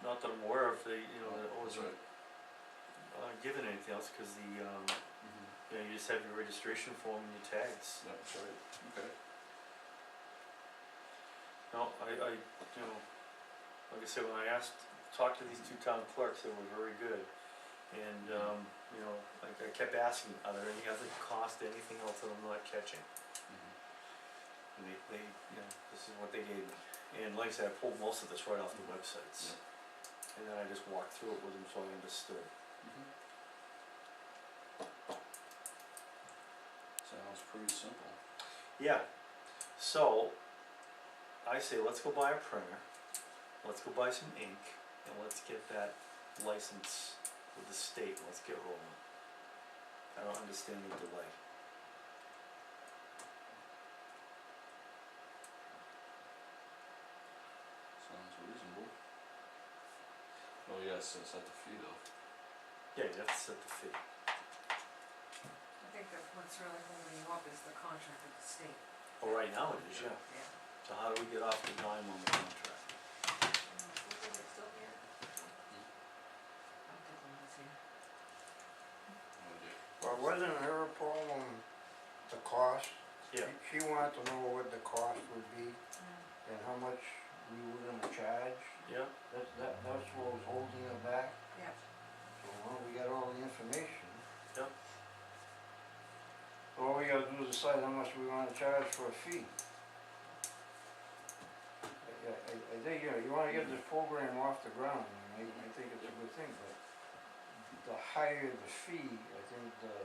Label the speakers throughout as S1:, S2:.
S1: that I'm aware of, they, you know, that
S2: That's
S1: wasn't
S2: right.
S1: uh, given anything else, cause the, um,
S2: Mhm.
S1: you know, you just have your registration form and your tags.
S2: Yeah, That's right, okay.
S1: No, I, I, you know, like I said, when I asked, talked to these two town clerks, they were very good. And, um, you know, like I kept asking, are there any other cost, anything else that I'm not catching?
S2: Mhm.
S1: And they, they, you know, this is what they gave me. And like I said, I pulled most of this right off the websites. And then I just walked through it with them so I understood.
S2: Mhm. Sounds pretty simple.
S1: Yeah, so I say let's go buy a printer, let's go buy some ink, and let's get that license with the state, and let's get rolling. I don't understand the delay.
S2: Sounds reasonable. Oh yes, it's at the fee though.
S1: Yeah, you have to set the fee.
S3: I think that what's really holding you up is the contract with the state,
S1: Well, Oh, right now it is, yeah.
S3: yeah.
S1: So how do we get off the dime on the contract?
S3: Mm, Is it still here? I don't think one is here.
S2: Oh dear.
S4: Well, wasn't her problem the cost?
S1: Yeah.
S4: She she wanted to know what the cost would be
S3: Yeah.
S4: and how much we were gonna charge.
S1: Yeah,
S4: That's, that, that's what was holding her back.
S3: Yeah.
S4: So, well, we got all the information.
S1: Yeah.
S4: All we gotta do is decide how much we wanna charge for a fee. I, I, I think, you know, you wanna get this program off the ground, and I, I think it's a good thing, but the higher the fee, I think the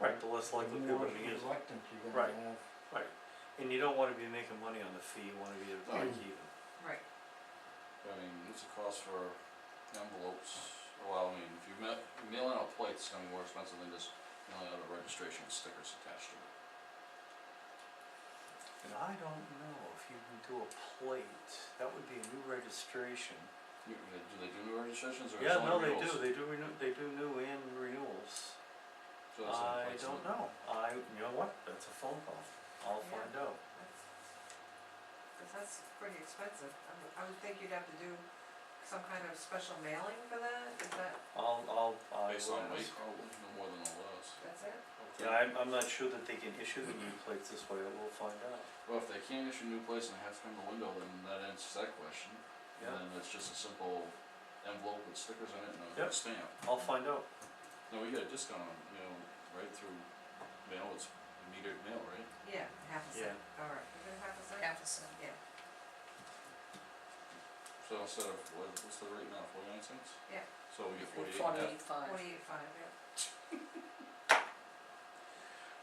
S1: right, the less likely people to use it.
S4: reluctant you're
S1: Right.
S4: gonna have.
S1: And you don't wanna be making money on the fee, you wanna be at a break even.
S3: Right,
S2: I mean, what's the cost for envelopes? Well, I mean, if you mail, mailing out plates, it's gonna be more expensive than just mailing out a registration with stickers attached to it.
S1: And I don't know if you can do a plate, that would be a new registration.
S2: You- they- Do they do new registrations or is it
S1: Yeah, no,
S2: only
S1: they
S2: renewals?
S1: do, they do renew, they do new and renewals.
S2: So it's only
S1: I
S2: plates
S1: don't
S2: and-
S1: know, I, you know what, that's a phone call, I'll
S3: Yeah.
S1: find out.
S3: that's, cause that's pretty expensive, I would, I would think you'd have to do some kind of special mailing for that, is that,
S1: I'll, I'll, I
S2: Based on
S1: will
S2: weight,
S1: ask.
S2: probably, no more than all those.
S3: that's it?
S1: Yeah, I'm, I'm not sure that they can issue the new plates this way, I will find out.
S2: Well, if they can't issue new plates and they have to come to window, then that answers that question.
S1: Yeah.
S2: And then it's just a simple envelope with stickers on it and
S1: Yep.
S2: a stamp.
S1: I'll find out,
S2: No, we get a discount on, you know, right through mail, it's metered mail, right?
S3: Yeah, half a cent, alright, is it half a cent? Half a cent. Yeah,
S2: So instead of, what, what's the rate now, forty-nine cents?
S3: Yeah.
S2: So we get forty-eight and a half,
S3: forty-eight five, yeah.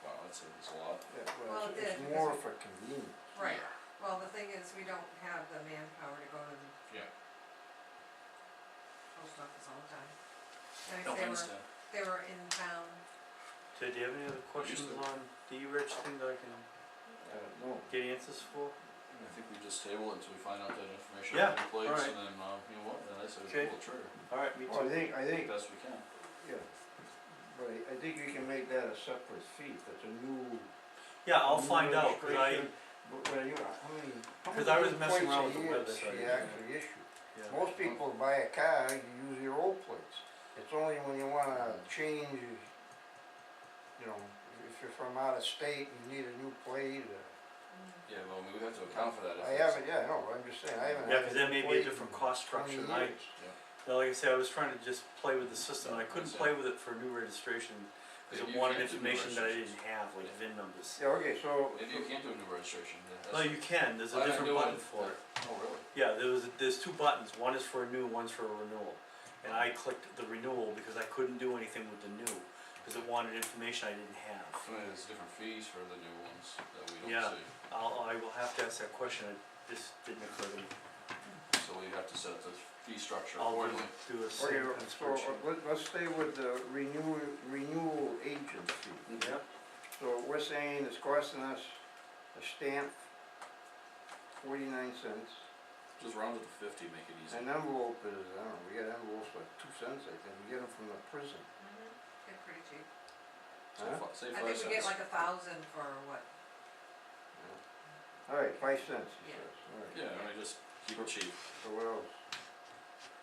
S2: wow, that's a, that's a lot.
S4: Yeah,
S3: Well,
S4: well,
S3: it
S4: it's-
S3: did,
S4: it's
S3: because
S4: more
S3: we-
S4: for convenience.
S3: Right, well, the thing is, we don't have the manpower to go to the
S2: Yeah,
S3: post office all the time. And if
S2: no, I
S3: they were,
S2: understand.
S3: they were in town,
S1: Ted, do you have any other questions
S2: to.
S1: on the E-reg thing that I can
S4: Uh, no,
S1: get answers for?
S2: I think we just table it until we find out that information
S1: Yeah,
S2: on the plates
S1: alright.
S2: and then, uh, you know what, then I say we
S1: Okay.
S2: pull the trigger,
S1: Alright, me
S4: well, I
S1: too.
S4: think, I think,
S2: best we can.
S4: yeah, but I, I think you can make that a separate fee, if it's a new.
S1: Yeah, I'll
S4: new
S1: find out, cause I,
S4: registration. But when you, how many, how
S1: 'Cause I
S4: many
S1: was messing
S4: plates
S1: around
S4: a
S1: with the
S4: year
S1: website,
S4: she
S1: yeah.
S4: actually issue?
S1: yeah.
S4: Most people buy a car, you use your old plates, it's only when you wanna change, you know, if you're from out of state, you need a new plate, or,
S3: mm-hmm,
S2: Yeah, well, I mean, we have to account for that if
S4: I
S2: it's-
S4: haven't, yeah, no, I'm just saying, I haven't
S1: Yeah,
S4: had
S1: cause
S4: a
S1: that
S4: new
S1: may be a
S4: plate
S1: different
S4: in
S1: cost
S4: 20
S1: structure, and I,
S4: years.
S1: now, like I said, I was trying to just play with the system, and I couldn't
S2: Yeah.
S1: play with it for new registration, cause
S2: If
S1: it
S2: you
S1: wanted
S2: can't do
S1: information that I
S2: registrations.
S1: didn't have, like VIN numbers.
S4: Yeah, okay, so.
S2: Maybe you can't do a new registration, then that's.
S1: No, you can, there's
S2: Why
S1: a
S2: not do
S1: different
S2: it?
S1: button for it.
S2: Oh, really?
S1: Yeah, there was, there's two buttons, one is for a new, one's for a renewal. And I clicked the renewal because I couldn't do anything with the new, cause it wanted information I didn't
S2: I
S1: have.
S2: mean, there's different fees for the new ones that we
S1: Yeah.
S2: don't see,
S1: I'll, I will have to ask that question, I- this didn't occur to me.
S2: so we have to set the fee structure
S1: I'll do-
S2: accordingly.
S1: do a
S4: Okay,
S1: simple
S4: so uh,
S1: spreadsheet.
S4: let, let's stay with the renewal, renewal agency.
S1: Yeah,
S4: So we're saying it's costing us a stamp, forty-nine cents,
S2: Just round it to fifty, make it easy.
S4: an envelope is, I don't know, we got envelopes for two cents, I think, we get them from the prison,
S3: mhm, they're pretty cheap.
S2: So
S4: huh?
S2: fi- Say
S3: I
S2: five
S3: think we get
S2: cents.
S3: like a thousand for what,
S4: Alright, five cents, he
S3: Yeah.
S4: says, alright,
S2: Yeah, I mean, just keep it cheap.
S4: so what else?